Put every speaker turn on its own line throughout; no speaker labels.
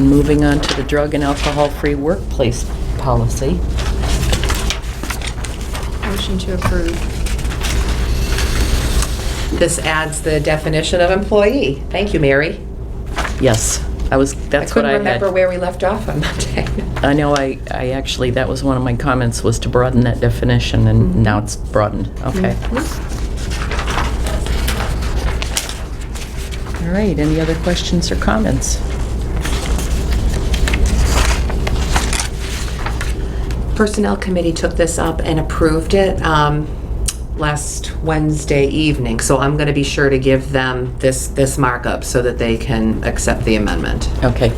moving on to the drug and alcohol-free workplace policy.
Motion to approve.
This adds the definition of employee. Thank you, Mary.
Yes, I was, that's what I
couldn't
had.
remember where we left off on Monday.
I know, I, I actually, that was one of my comments, was to broaden that definition, and
Mm-hmm.
now it's broadened. Okay. All right, any other questions or comments?
Personnel Committee took this up and approved it um, last Wednesday evening, so I'm going to be sure to give them this, this markup so that they can accept the amendment.
Okay.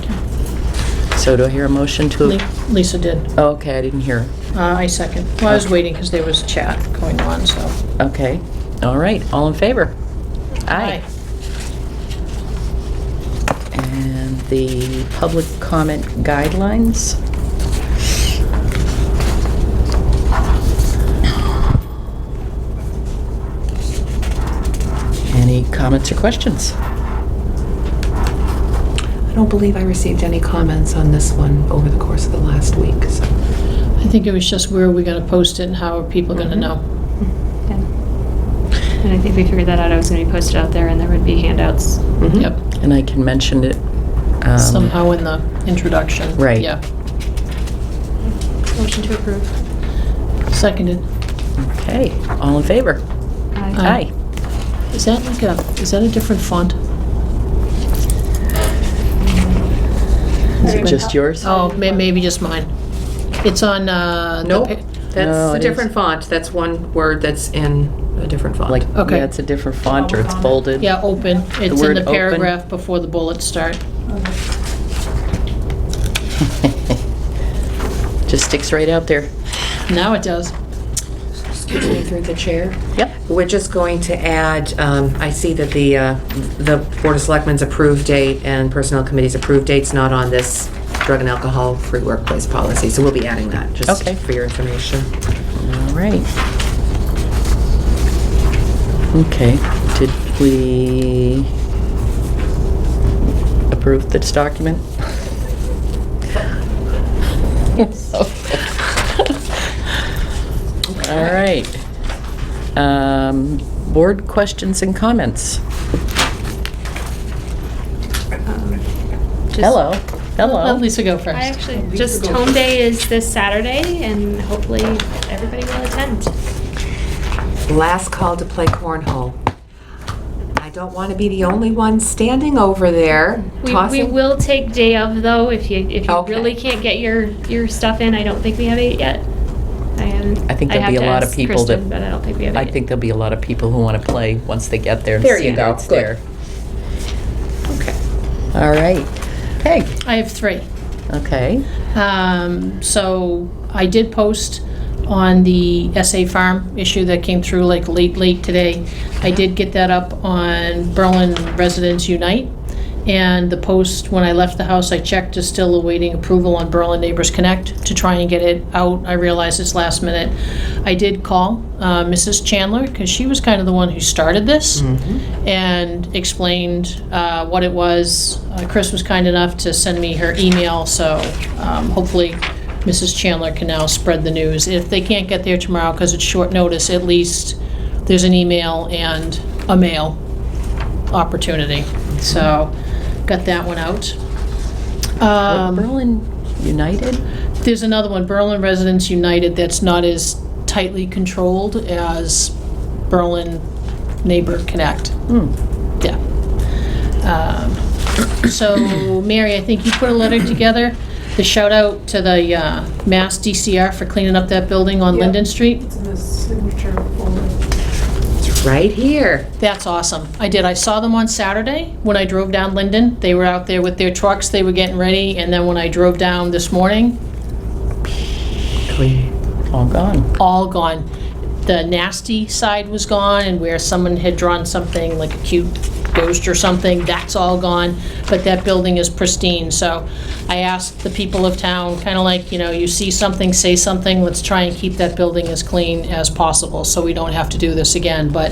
So do I hear a motion to?
Le- Lisa did.
Oh, Okay, I didn't hear.
Uh, I second. Well, I was waiting because there was chat going on, so.
Okay, all right, all in favor? Aye. And the public comment guidelines? Any comments or questions?
I don't believe I received any comments on this one over the course of the last week, so.
I think it was just where are we going to post it and how are people going to know?
Yeah. And I think we figured that out. I was going to be posted out there and there would be handouts.
mhm.
Yep,
And I can mention it. um,
somehow in the introduction.
Right.
Yeah,
Motion to approve.
seconded.
Okay, all in favor?
Aye.
Aye.
Aye. Is that like a, is that a different font?
Is it just yours?
Oh, may- maybe just mine. It's on, uh. the
Nope,
pa-
No,
that's a
it
different font. That's one word that's in a different font.
Like,
Okay.
yeah, it's a different font or it's bolded?
Yeah, open. It's in
word
the
open.
paragraph before the bullets start.
Just sticks right out there.
Now it does.
Excuse me, through the chair.
Yep.
We're just going to add, um, I see that the, uh, the Board of Selectmen's approved date and Personnel Committee's approved date's not on this drug and alcohol-free workplace policy, so we'll be adding that, just
Okay.
for your information.
All right. Okay, did we approve this document? All right. Um, Board questions and comments?
Just-
Hello,
Let
hello.
Lisa go first.
I actually, just home day is this Saturday and hopefully everybody will attend.
Last call to play cornhole. I don't want to be the only one standing over there
We, we
tossing.
will take day of though, if you, if you
Okay.
really can't get your, your stuff in. I don't think we have eight yet. I haven't.
I think
I'd
there'll be
have
a
to
lot of
ask
people that-
Kristen, But I don't think we have eight.
I think there'll be a lot of people who want to play once they get there and
There
see
you
that
go,
it's there.
good. Okay.
All right. Peg?
I have three.
Okay.
Um, so I did post on the SA Farm issue that came through like late, late today. I did get that up on Berlin Residents Unite. And the post, when I left the house, I checked, is still awaiting approval on Berlin Neighbors Connect to try and get it out. I realize it's last minute. I did call uh, Mrs. Chandler, because she was kind of the one who started this and explained uh, what it was. Uh, Chris was kind enough to send me her email, so um, hopefully Mrs. Chandler can now spread the news. If they can't get there tomorrow because it's short notice, at least there's an email and a mail opportunity. So, got that one out. Um,
Berlin United?
there's another one, Berlin Residents United, that's not as tightly controlled as Berlin Neighbor Connect. Yeah. Um, So, Mary, I think you put a letter together, the shout out to the uh, Mass DCR for cleaning up that building on
Yep.
Linden Street.
It's in the signature folder.
It's right here.
That's awesome. I did. I saw them on Saturday when I drove down Linden. They were out there with their trucks, they were getting ready, and then when I drove down this morning,
Clean.
All gone.
all gone. The nasty side was gone, and where someone had drawn something like a cute ghost or something, that's all gone. But that building is pristine, so I asked the people of town, kind of like, you know, you see something, say something, let's try and keep that building as clean as possible, so we don't have to do this again. But